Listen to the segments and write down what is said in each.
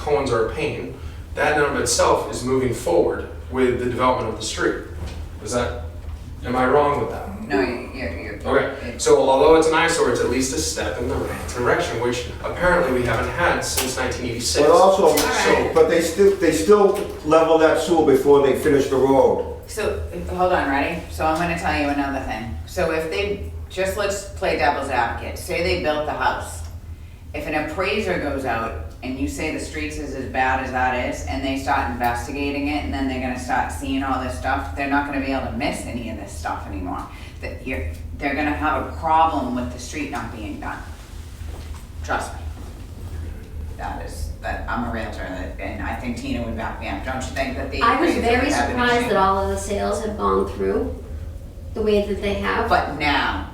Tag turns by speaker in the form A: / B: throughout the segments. A: cones are a pain, that in and of itself is moving forward with the development of the street. Is that, am I wrong with that?
B: No, you- you're, you're.
A: Okay, so although it's an eyesore, it's at least a step in the right direction, which apparently we haven't had since nineteen eighty-six.
C: But also,
B: Alright.
C: but they still, they still level that sewer before they finish the road.
B: So, hold on, ready? So I'm gonna tell you another thing. So if they, just let's play devil's advocate, say they built the house. If an appraiser goes out and you say the streets is as bad as that is, and they start investigating it, and then they're gonna start seeing all this stuff, they're not gonna be able to miss any of this stuff anymore. That you're, they're gonna have a problem with the street not being done. Trust me. That is, that, I'm a realtor, that- and I think Tina would back me up, don't you think that the
D: I was
B: appraiser
D: very
B: would have an
D: surprised
B: issue?
D: that all of the sales have gone through the way that they have.
B: But now,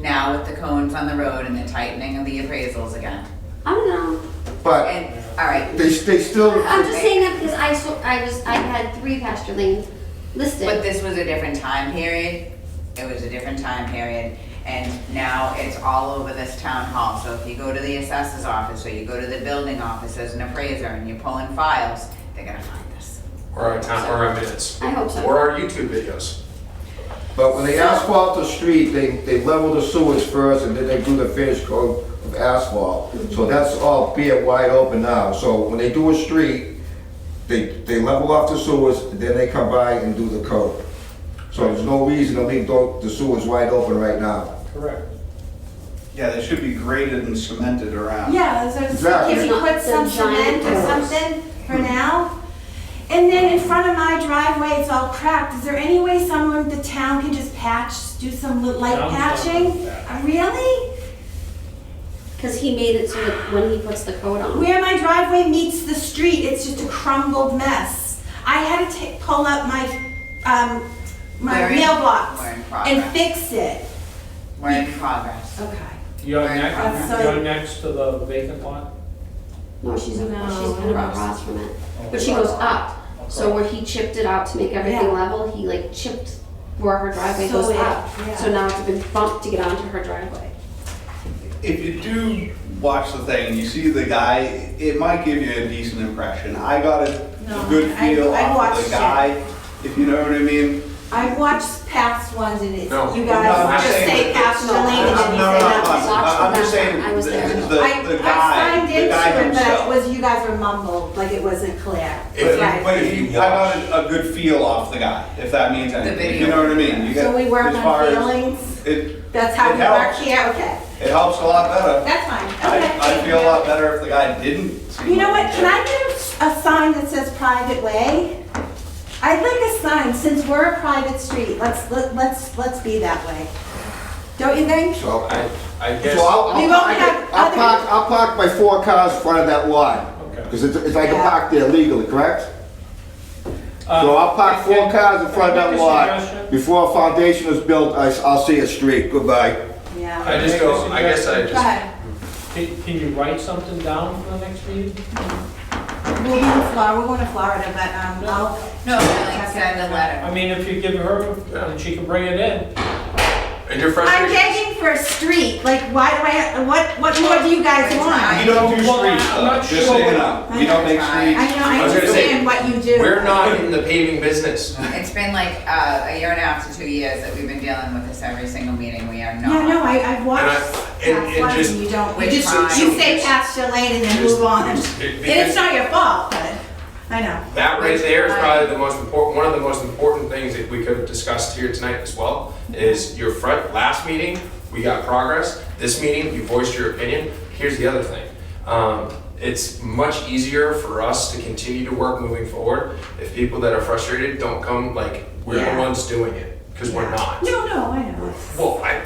B: now with the cones on the road and the tightening of the appraisals again,
D: I don't know.
C: But
B: and, all right,
C: they, they still,
D: I'm just saying that because I, saw- I was, I had three pasture lanes
B: but
D: listed.
B: this was a different time period. It was a different time period, and now it's all over this town hall. So if you go to the assessor's office, or you go to the building office as an appraiser, and you're pulling files, they're gonna find this.
A: Or our town, or our minutes,
D: I hope so.
A: or our YouTube videos.
C: but when they asphalt the street, they, they level the sewers first and then they do the finish coat of asphalt.
D: Mhm.
C: So that's all bare wide open now. So when they do a street, they, they level off the sewers, and then they come by and do the coat. So there's no reason to leave tho- the sewers wide open right now.
E: Correct.
F: Yeah, they should be graded and cemented around.
G: Yeah, so it's-
C: Exactly.
G: can we put
D: It's
G: some
D: not the giant
G: cement or
D: pillars.
G: something for now? And then in front of my driveway, it's all cracked. Is there any way someone, the town can just patch, do some li- light
E: Town's not
G: patching?
E: gonna patch.
G: Uh, Really?
D: Because he made it so that when he puts the coat on,
G: Where my driveway meets the street, it's just a crumbled mess. I had to ta- pull up my, um, my
B: We're in-
G: mailbox
B: we're in
G: and
B: progress.
G: fix it.
B: We're in progress.
G: Okay.
E: You're
B: Right,
E: next,
G: outside.
E: you're next to the vacant lot?
D: no, she's, she's kind of
B: across.
D: across from it.
B: Oh,
D: But she goes up. So where he chipped it out to make everything
G: Yeah.
D: level, he like chipped where her driveway
G: So
D: goes
G: it-
D: up.
G: yeah.
D: So now it's been bumped to get onto her driveway.
F: If you do watch the thing, you see the guy, it might give you a decent impression. I got a
G: No,
F: a good
G: I-
F: feel
G: I
F: off of
G: watched
F: the
G: it.
F: guy, if you know what I mean.
G: I've watched past ones and it's,
A: No.
G: you
F: No, I'm
G: guys just
F: saying-
G: say pasture
D: No,
G: lane and then you
F: No,
G: say
F: no,
G: that.
F: no,
D: Watch
F: I'm I'm just
D: the back.
F: saying,
D: I was
F: the
D: there.
F: the-
G: I,
F: the
G: I
F: guy,
G: signed
F: the guy
G: into it, but it
F: himself.
G: was, you guys were mumbled, like it wasn't clear.
A: If-
F: But
G: Right.
F: but if you, I got a a good feel off the guy, if that means anything, if you know what I mean. You get-
G: So we work
F: as far
G: on
F: as-
G: feelings,
F: It,
G: that's how
F: it
G: we
F: helps.
G: work here, okay,
F: it helps a lot better.
G: that's fine,
F: I,
G: okay.
F: I feel a lot better if the guy didn't seem
G: You know
F: like
G: what,
F: a
G: can I get a- a sign that says private way? I'd like a sign, since we're a private street, let's, let- let's, let's be that way. Don't you think?
C: So
A: I, I guess.
C: So I'll,
G: We
C: I'll
G: won't
C: park,
G: have
C: it- I'll
G: other-
C: park, I'll park my four cars in front of that lot.
E: Okay.
C: Because it's, it's, I can
G: Yeah.
C: park there legally, correct? So
E: Uh,
C: I'll park
E: can-
C: four cars in
E: can
C: front of
E: I
C: that
E: make a
C: lot.
E: suggestion?
C: Before a foundation is built, I, will see a street, goodbye.
G: Yeah.
A: I just go, I guess I
G: Go
A: just,
G: ahead,
E: Can, can you write something down for the next meeting?
G: we'll be in Florida, we're going to Florida, but, um, I'll,
B: No, like uh, send a letter.
E: I mean, if you give her, and she can bring it in.
A: and your
G: I'm
A: frustration.
G: begging for a street, like, why do I, what, what more do you guys want?
F: We don't do
E: Well, I'm
F: streets, though,
E: not
F: just so
E: sure.
F: you know, we don't make
B: I-
G: I
F: streets.
G: know, I
A: I was gonna say,
G: understand what you do.
A: We're not in the paving business.
B: It's been like, uh, a year and a half to two years that we've been dealing with this every single meeting, we are not.
G: Yeah, no, I, I've watched
A: And I- and- and
G: past ones
A: just-
G: and you don't,
B: We
G: you just,
B: try.
G: you say pasture lane and then move on. And
A: Just- it-
G: it's
A: because
G: not your fault, but, I know.
A: That right there is
B: Which I-
A: probably the most important, one of the most important things that we could have discussed here tonight as well, is your front, last meeting, we got progress. This meeting, you voiced your opinion. Here's the other thing. Um, It's much easier for us to continue to work moving forward if people that are frustrated don't come, like, we're the
G: Yeah.
A: ones doing it, because we're not.
G: No, no, I know.
A: Well, I,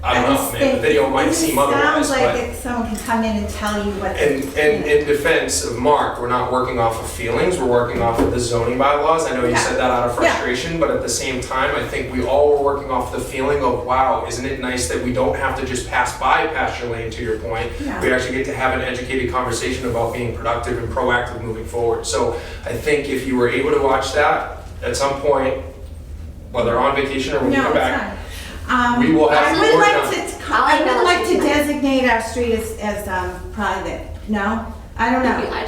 A: I don't know,
G: just
A: man, the
G: think-
A: video might
G: it
A: seem otherwise,
G: Sounds like
A: but.
G: it, someone can come in and tell you what.
A: And, and in defense of Mark, we're not working off of feelings, we're working off of the zoning bylaws. I know you said that out of
G: Yeah.
A: frustration, but at the same time, I think we all were working off the feeling of, wow, isn't it nice that we don't have to just pass by pasture lane, to your point?
G: Yeah.
A: We actually get to have an educated conversation about being productive and proactive moving forward. So I think if you were able to watch that at some point, whether on vacation or when you
G: No,
A: come
G: it's
A: back,
G: not. Um,
A: We will have
G: I
A: some
G: would
A: work
G: like
A: done.
G: to, t- I
D: I'll
G: would like
D: acknowledge
G: to
D: it.
G: designate our street as, as, um, private, no? I don't know.
D: I